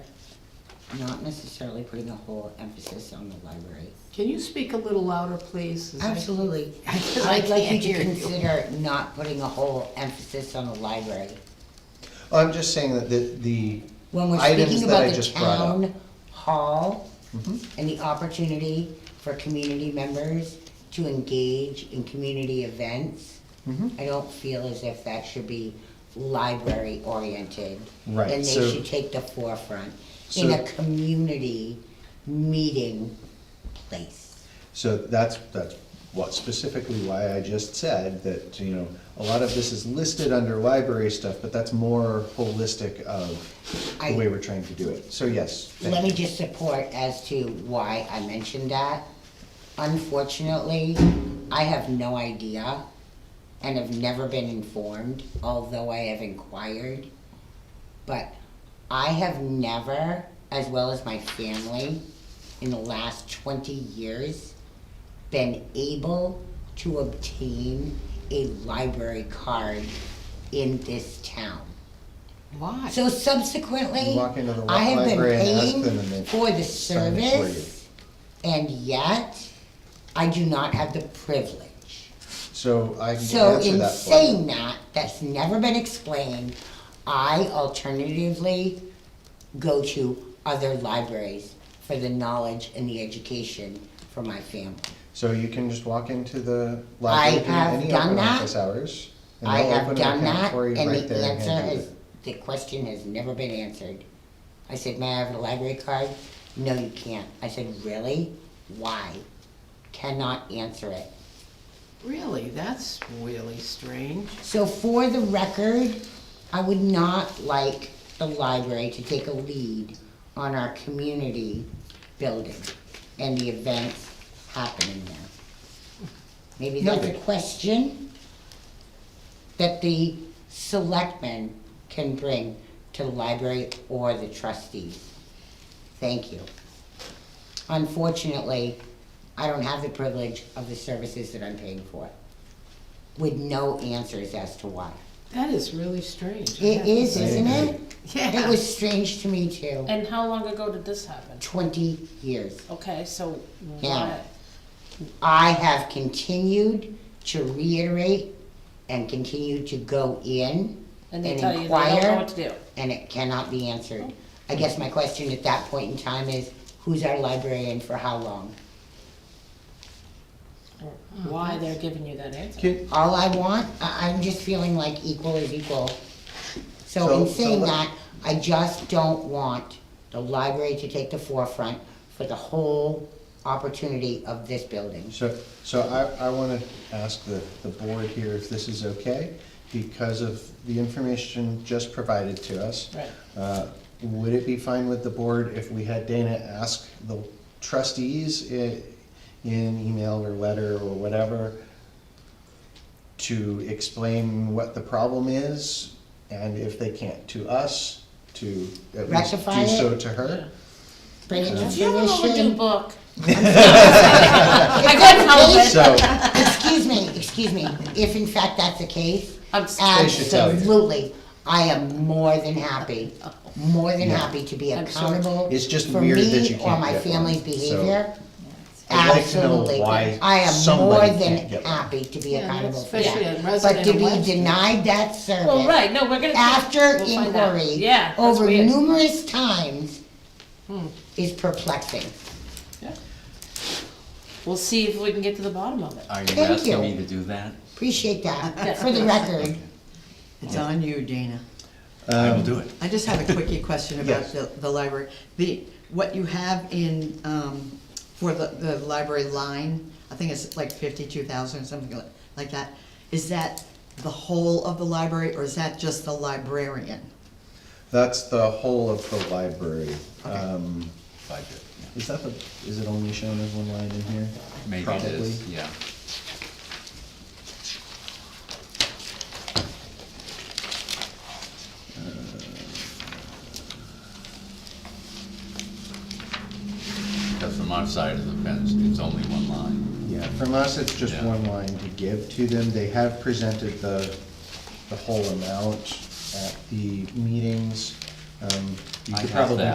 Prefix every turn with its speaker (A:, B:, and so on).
A: not necessarily putting a whole emphasis on the library.
B: Can you speak a little louder, please? Is that-
A: Absolutely.
B: 'Cause I
A: I'd like you
B: can't
A: to
B: hear you.
A: consider not putting a whole emphasis on the library.
C: I'm just saying that the, the
A: When we're
C: items
A: speaking
C: that
A: about
C: I
A: the
C: just brought up. Mm-hmm.
A: town hall and the opportunity for community members to engage in community events,
C: Mhm.
A: I don't feel as if that should be library oriented.
C: Right,
A: And
C: so-
A: they should take the forefront in a
C: So-
A: community meeting place.
C: So that's, that's what specifically why I just said that, you know, a lot of this is listed under library stuff, but that's more holistic of the
A: I-
C: way we're trying to do it. So yes. thank
A: Let me
C: you.
A: just support as to why I mentioned that. Unfortunately, I have no idea and have never been informed, although I have inquired. But I have never, as well as my family, in the last twenty years, been able to obtain a library card in this town.
B: Why?
A: So subsequently,
C: You walk into the
A: I have been
C: library and ask them and
A: paying
C: they
A: for the
C: sign it for
A: service, and yet, I do not have the privilege.
C: So I can
A: So
C: answer
A: in
C: that for you.
A: saying that, that's never been explained, I alternatively go to other libraries for the knowledge and the education for my family.
C: So you can just walk into the
A: I
C: library
A: have
C: during any
A: done
C: open
A: that.
C: office hours. and
A: I
C: they'll
A: have
C: open an
A: done
C: account
A: that,
C: for you
A: and
C: right
A: the
C: there hand
A: answer
C: you
A: is, the question has never been answered. I said, may I have a library card? No, you can't. I said, really? Why? Cannot answer it.
B: Really? That's really strange.
A: So for the record, I would not like the library to take a lead on our community building and the events happening there. Maybe that's a
C: Noted.
A: question that the selectmen can bring to the library or the trustees. Thank you. Unfortunately, I don't have the privilege of the services that I'm paying for with no answers as to why.
B: That is really strange. I have
A: It
B: to
A: is,
B: say.
A: isn't it? It
B: Yeah.
A: was strange to me too.
D: And how long ago did this happen?
A: Twenty years.
D: Okay, so
A: Yeah.
D: why,
A: I have continued to reiterate and continue to go in and
D: and they tell you they don't know what
A: inquire,
D: to do.
A: and it cannot be answered. I guess my question at that point in time is, who's our librarian for how long?
D: or Why they're giving you that answer.
C: Can-
A: All I want, I, I'm just feeling like equal is equal. So in
C: So- so
A: saying
C: let-
A: that, I just don't want the library to take the forefront for the whole opportunity of this building.
C: So, so I, I wanna ask the, the board here if this is okay, because of the information just provided to us.
D: Right.
C: Uh, Would it be fine with the board if we had Dana ask the trustees i- in email or letter or whatever to explain what the problem is, and if they can't, to us, to at least
A: Rectify
C: do so
A: it?
C: to her?
A: Bring it to
D: You have an overdue
A: fruition.
D: book.
A: If that's the
C: So,
A: case- Excuse me, excuse me, if in fact that's the case,
D: I'm s-
C: They should tell you.
A: absolutely, I am more than happy, more than
C: Yeah.
A: happy to be
D: I'm sure.
A: accountable
C: It's just
A: for
C: weird that
A: me
C: you
A: or
C: can't
A: my
C: get one,
A: family's
C: so-
A: behavior.
C: I'd like to know
A: Absolutely.
C: why
A: I am more
C: somebody
A: than
C: can't get one.
A: happy to be
B: Yeah,
A: accountable for
B: especially
A: that.
B: a
A: But
B: resident
A: to
B: of
A: be
B: Webster.
A: denied that
D: Well,
A: service
D: right, no, we're gonna.
A: after
D: we'll find out.
A: inquiry
D: Yeah, that's
A: over
D: weird. Hmm.
A: numerous times is perplexing.
D: We'll see if we can get to the bottom of it.
E: Are you
A: Thank you.
E: asking me to do that?
A: Appreciate that. For the record,
F: It's on you, Dana.
E: I will do it.
F: I just have a quickie question about
C: Yes.
F: the, the library. The, what you have in, um, for the, the library line, I think it's like fifty-two thousand or something like- like that. Is that the whole of the library or is that just the librarian?
C: That's the whole of the library.
F: Okay.
C: Um,
E: If I did,
C: Is that the, is it only shown as one line in here?
E: yeah. Maybe it
C: Probably.
E: is, yeah. Uh, Because from our side of the fence, it's only one line.
C: Yeah, from us, it's just
E: Yeah.
C: one line to give to them. They have presented the, the whole amount at the meetings. Um, You
E: I
C: could
E: have
C: probably
E: that.